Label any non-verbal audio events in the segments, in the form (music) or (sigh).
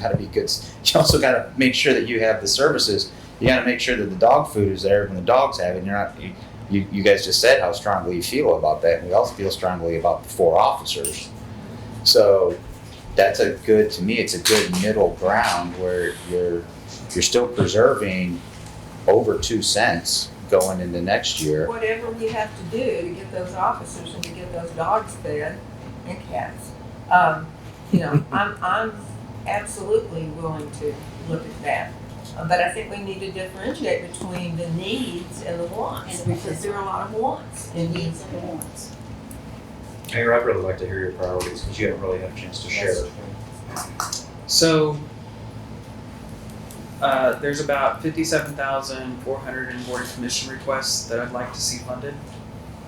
got to be good. s- (laughs) You also got to make sure that you have the services. You got to make sure that the dog food is there when the dogs have it. You're not. You, you, you guys just said how strongly you feel about that, and we all feel strongly about the four officers. So that's a good to me. It's a good middle ground where you're you're still preserving over two cents going into next year. whatever we have to do to get those officers and to get those dogs fed and cats. Um, (laughs) you know, I'm, I'm absolutely willing to look at that. Uh, But I think we need to differentiate between the needs and the wants, because there are a lot of wants and needs. and wants. Mayor, I'd really like to hear your priorities because you haven't really had a chance to share. So uh, there's about fifty-seven thousand four hundred in board and commission requests that I'd like to see funded.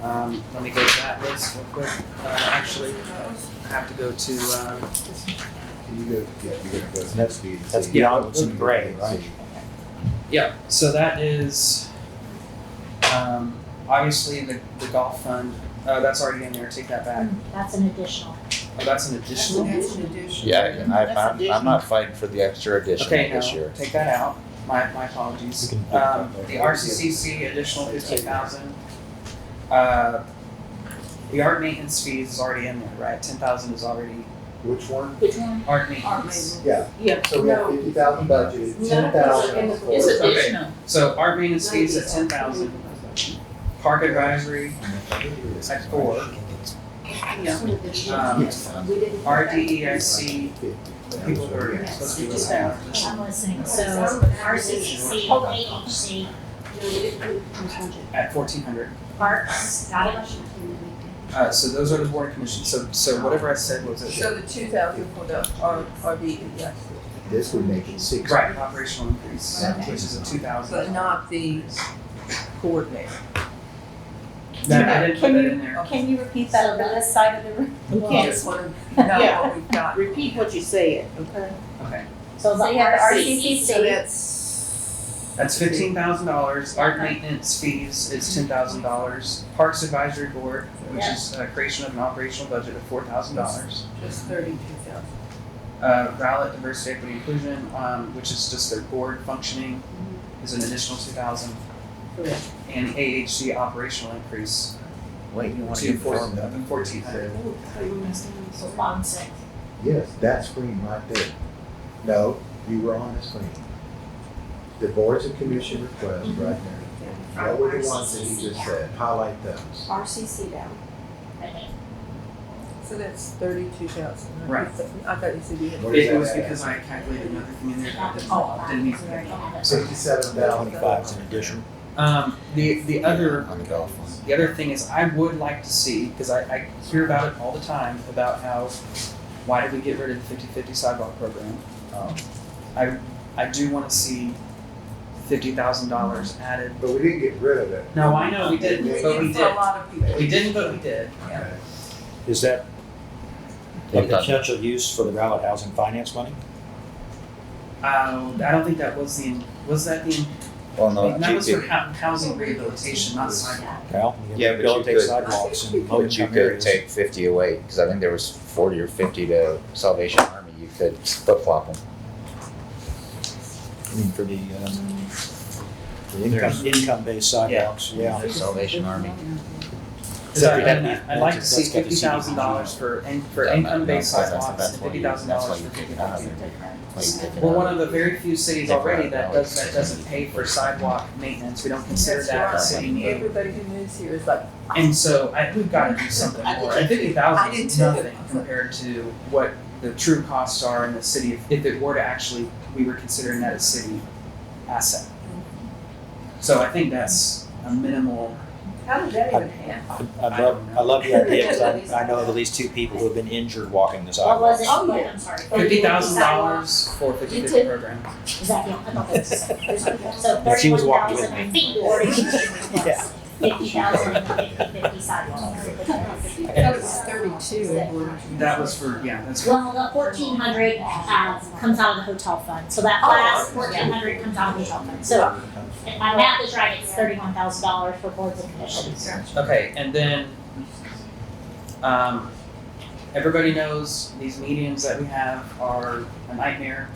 Um, let me go to that list real quick. Uh, actually, I have to go to, um, You go, yeah, you're gonna go to the next meeting. That's see beyond what's in the grade, grade, yeah, so that is um, obviously the, the golf fund. Uh, that's already in there. Take that back. Um, That's an additional. Oh, that's an That's additional. that's an addition. Yeah, and I, That's I'm, I'm not fighting for the extra addition Okay, this no, year. take that out. My, my apologies. We can pick Um, that up. the RCCC additional fifteen thousand. Uh, the art maintenance fees is already in there, right? Ten thousand is already Which one? Which one? art Art maintenance. maintenance. Yeah, Yeah. so we have No. fifty thousand budget, No, ten thousand it's for. It's Okay. additional. So art maintenance fees at ten thousand, park advisory at four, It's an additional. um, We didn't. RDEIC, people who are supposed to be looking at. I'm listening, so RCCC, AHC, At fourteen hundred. parks, got it? Uh, so those are the board commissions. So, so whatever I said was it. So the two thousand for the R, RV, yes, This would make it six. Right, operational increase, Okay. which is a two but thousand. not the coordinator. That, I didn't put Can that you- in there. Can you repeat that on this side of the room? I just (laughs) wanna know what we've got. Repeat what you said, okay? Okay. So the So you have So RCCC, that's. That's fifteen thousand dollars, art maintenance fees is ten thousand dollars, parks advisory board, which is uh, creation of an operational budget of four thousand dollars. Just thirty-two thousand. Uh, ballot diversity equity inclusion, um, which is just their board functioning, is an additional two thousand. Correct. And AHC operational increase Wait, you want to to four, inform them? fourteen hundred. so bond six. Yes, that screen right there. No, you were on the screen. The boards and commission request right there. That were the ones that you just said, highlight those. RCC down. So that's thirty-two thousand. Right. I thought you said you had. Where is It was that at? because I calculated another thing in there that didn't, didn't need to be. Sixty-seven thousand. an addition Um, the, the other on the golf one. The other thing is, I would like to see, because I, I hear about it all the time, about how, why did we get rid of the 50 50 sidewalk program? Um, I, I do want to see $50,000 added. But we didn't get rid of it. No, I know we didn't, but we did for a did. lot of people. We didn't, but we did. Okay. Is that a I'm done. potential use for the Broward Housing Finance money? Um, I don't think that was the, was that the, Well, Oh, no, that you was for could, hou- housing rehabilitation, not sidewalk. Well, we can Yeah, but you rehabilitate could- sidewalks Oh, in low but you income could areas. take fifty away, because I think there was forty or fifty to Salvation Army, you could flip flop them. I mean, for the, um, the income, income-based sidewalks, yeah. Salvation Army. So Except we I'd, have I'd the- like to see that's got the fifty CDBG. thousand dollars for, in- for Yeah, income-based that's- that's- sidewalks that's and why you- fifty thousand that's why dollars you for take fifty it out of thousand. there. Why you take it Well, out? one of the very few cities Take already five that dollars. does, that doesn't pay for sidewalk maintenance, we don't consider That's that a right. city need. Everybody who moves here is like, And so I, we've gotta do something I did more, too. and fifty I thousand did is too. nothing compared to what the true costs are in the city, if, if it were to actually, we were considering that a city asset. So I think that's a minimal, how did that even happen? I I don't love, know. I love the idea, because I, I know of at least two people who have been injured walking the What was sidewalks. it? Oh, yeah. I'm sorry. fifty thousand dollars for fifty You fifty too. program. Is that, yeah, I (laughs) thought that was the same. So But she was thirty-one walking with thousand, I me. think, you (laughs) already request, fifty thousand, fifty, fifty sidewalks. That was thirty-two. in order to- That was for, yeah, that's for, Well, the fourteen hundred, uh, comes out of the hotel fund, so that Oh, last okay. fourteen hundred comes out of the hotel fund, so if my math is right, it's thirty-one thousand dollars for boards and commissions. okay, and then, um, everybody knows these meetings that we have are a nightmare.